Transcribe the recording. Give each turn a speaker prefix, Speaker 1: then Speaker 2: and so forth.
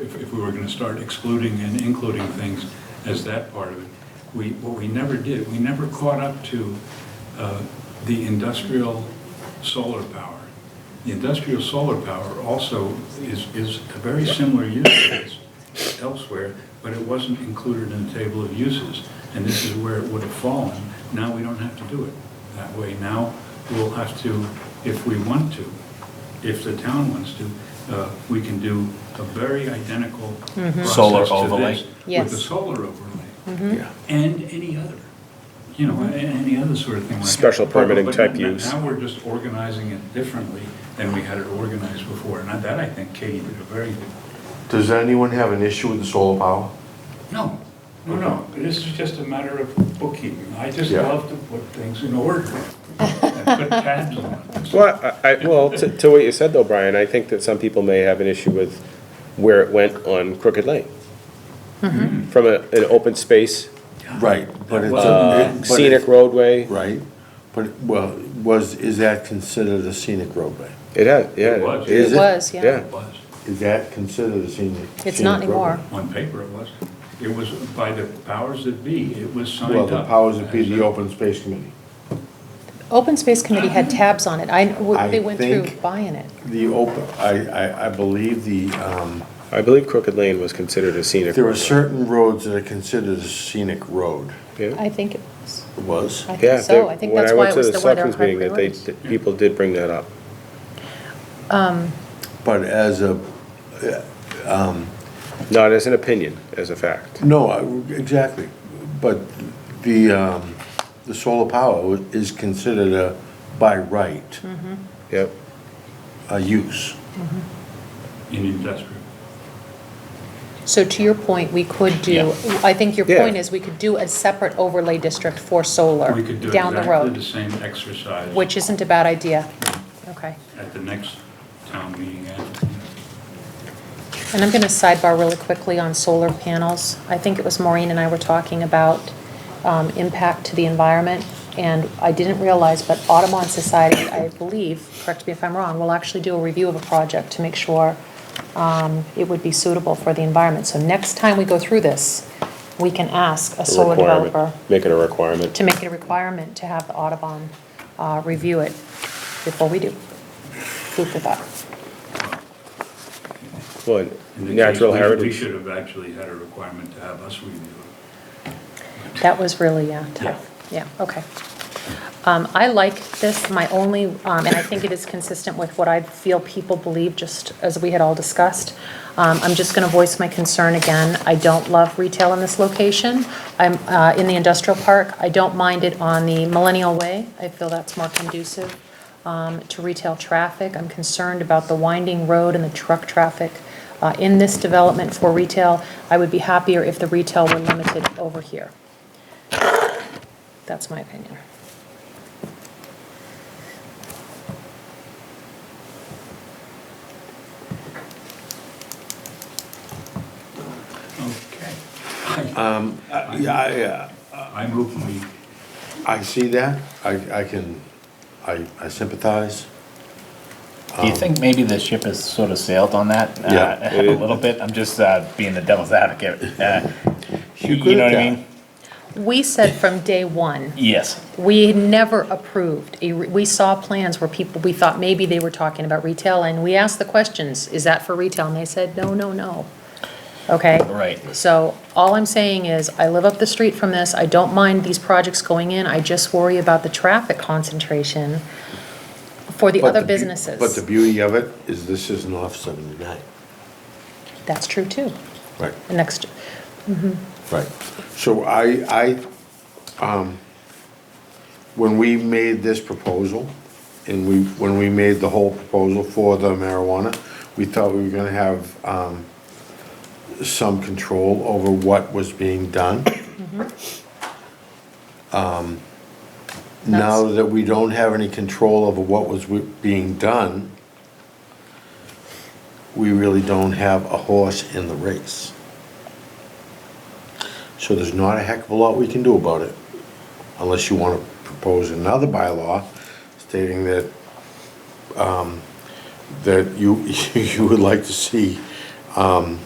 Speaker 1: if, if we were gonna start excluding and including things as that part of it. We, what we never did, we never caught up to uh, the industrial solar power. The industrial solar power also is, is a very similar use case elsewhere, but it wasn't included in the table of uses. And this is where it would have fallen. Now we don't have to do it that way. Now we'll have to, if we want to, if the town wants to, uh, we can do a very identical
Speaker 2: Solar
Speaker 1: process to
Speaker 2: overlay.
Speaker 1: this. With
Speaker 3: Yes.
Speaker 1: the solar overlay
Speaker 2: Yeah.
Speaker 1: and any other, you know, a- any other sort of thing like that.
Speaker 4: Special permitting
Speaker 1: But-
Speaker 4: type
Speaker 1: but n-
Speaker 4: use.
Speaker 1: Now we're just organizing it differently than we had it organized before. And that, I think, Katie did a very good,
Speaker 5: Does anyone have an issue with the solar power?
Speaker 1: no, no, no, this is just a matter of bookkeeping. I just
Speaker 5: Yeah.
Speaker 1: love to put things in order and put tabs on it.
Speaker 4: Well, I, I- well, to, to what you said though, Brian, I think that some people may have an issue with where it went on Crooked Lane. From a, an open space,
Speaker 2: Right, but it's.
Speaker 4: uh,
Speaker 2: a
Speaker 4: scenic roadway,
Speaker 2: Right, but, well, was, is that considered a scenic roadway?
Speaker 4: it had, yeah.
Speaker 1: It was.
Speaker 4: is
Speaker 2: It
Speaker 3: was, yeah.
Speaker 4: Yeah,
Speaker 1: It was,
Speaker 2: Is that considered a scenic?
Speaker 3: It's not
Speaker 2: scenic roadway?
Speaker 3: anymore.
Speaker 1: on paper it was. It was by the powers that be, it was signed
Speaker 2: Well,
Speaker 1: up.
Speaker 2: the powers that be,
Speaker 1: as
Speaker 2: the
Speaker 1: a-
Speaker 2: open space committee.
Speaker 3: Open Space Committee had tabs on it. I,
Speaker 2: I
Speaker 3: they went through
Speaker 2: think-
Speaker 3: buying it.
Speaker 2: The open, I, I, I believe the, um,
Speaker 4: I believe Crooked Lane was considered a scenic.
Speaker 2: there are
Speaker 4: roadway.
Speaker 2: certain roads that are considered a scenic road.
Speaker 4: Yeah.
Speaker 3: I think it was,
Speaker 2: It was.
Speaker 3: I
Speaker 4: Yeah,
Speaker 3: think so.
Speaker 4: they-
Speaker 3: I think
Speaker 4: when
Speaker 3: that's why
Speaker 4: went
Speaker 3: it
Speaker 4: to
Speaker 3: was the way they're
Speaker 4: selectmen's meeting, that they-
Speaker 3: harboring.
Speaker 4: that People did bring that up.
Speaker 2: But as a,
Speaker 4: Not as an opinion, as a fact.
Speaker 2: no, I- exactly, but the, um, the solar power is considered a, by right,
Speaker 4: Yep.
Speaker 2: a use.
Speaker 1: In industrial.
Speaker 3: So to your point, we could do, I think your
Speaker 4: Yeah.
Speaker 3: point is we could do a separate overlay district for solar
Speaker 1: We could do
Speaker 3: down the
Speaker 1: exactly the
Speaker 3: road,
Speaker 1: same exercise.
Speaker 3: which isn't a bad idea. Okay.
Speaker 1: at the next town meeting. and-
Speaker 3: And I'm going to sidebar really quickly on solar panels. I think it was Maureen and I were talking about um, impact to the environment, and I didn't realize, but Audubon Society, I believe, correct me if I'm wrong, will actually do a review of a project to make sure um, it would be suitable for the environment. So next time we go through this, we can ask a
Speaker 4: a
Speaker 3: solar
Speaker 4: requirement.
Speaker 3: developer
Speaker 4: Make it a requirement.
Speaker 3: to make it a requirement to have the Audubon uh, review it before we do. Food for thought.
Speaker 4: Well,
Speaker 1: in the
Speaker 4: natural
Speaker 1: case, we- We
Speaker 4: heritage.
Speaker 1: should have actually had a requirement to have us review it.
Speaker 3: That was really, yeah, tough. Yeah, okay. Um, I like this, my only, um, and I think it is consistent with what I feel people believe, just as we had all discussed. Um, I'm just gonna voice my concern again. I don't love retail in this location. I'm, uh, in the industrial park. I don't mind it on the Millennial Way. I feel that's more conducive, um, to retail traffic. I'm concerned about the winding road and the truck traffic, uh, in this development for retail. I would be happier if the retail were limited over here. That's my opinion.
Speaker 1: Okay.
Speaker 2: Uh, Yeah, I, uh,
Speaker 1: I move we,
Speaker 2: I see that, I, I can, I, I sympathize.
Speaker 6: Do you think maybe the ship has sort of sailed on that? uh,
Speaker 2: Um, Yeah.
Speaker 6: A little bit? I'm just uh, being the devil's advocate. Uh,
Speaker 2: You
Speaker 6: You know what I
Speaker 2: could,
Speaker 6: mean?
Speaker 3: We said from day one,
Speaker 6: Yes.
Speaker 3: we never approved, a re- we saw plans where people, we thought maybe they were talking about retail, and we asked the questions, is that for retail? And they said, no, no, no. Okay?
Speaker 6: Right.
Speaker 3: So all I'm saying is, I live up the street from this, I don't mind these projects going in, I just worry about the traffic concentration for the
Speaker 2: But
Speaker 3: other
Speaker 2: beau-
Speaker 3: businesses.
Speaker 2: But the beauty of it is this isn't off seventy-nine.
Speaker 3: That's true, too.
Speaker 2: Right.
Speaker 3: The Next,
Speaker 2: Right. So I, I, um, when we made this proposal, and we, when we made the whole proposal for the marijuana, we thought we were gonna have, um, some control over what was being done. Um, Now
Speaker 3: That's-
Speaker 2: that we don't have any control over what was wi- being done, we really don't have a horse in the race. So there's not a heck of a lot we can do about it, unless you want to propose another bylaw stating that, um, that you, you would like to see, um,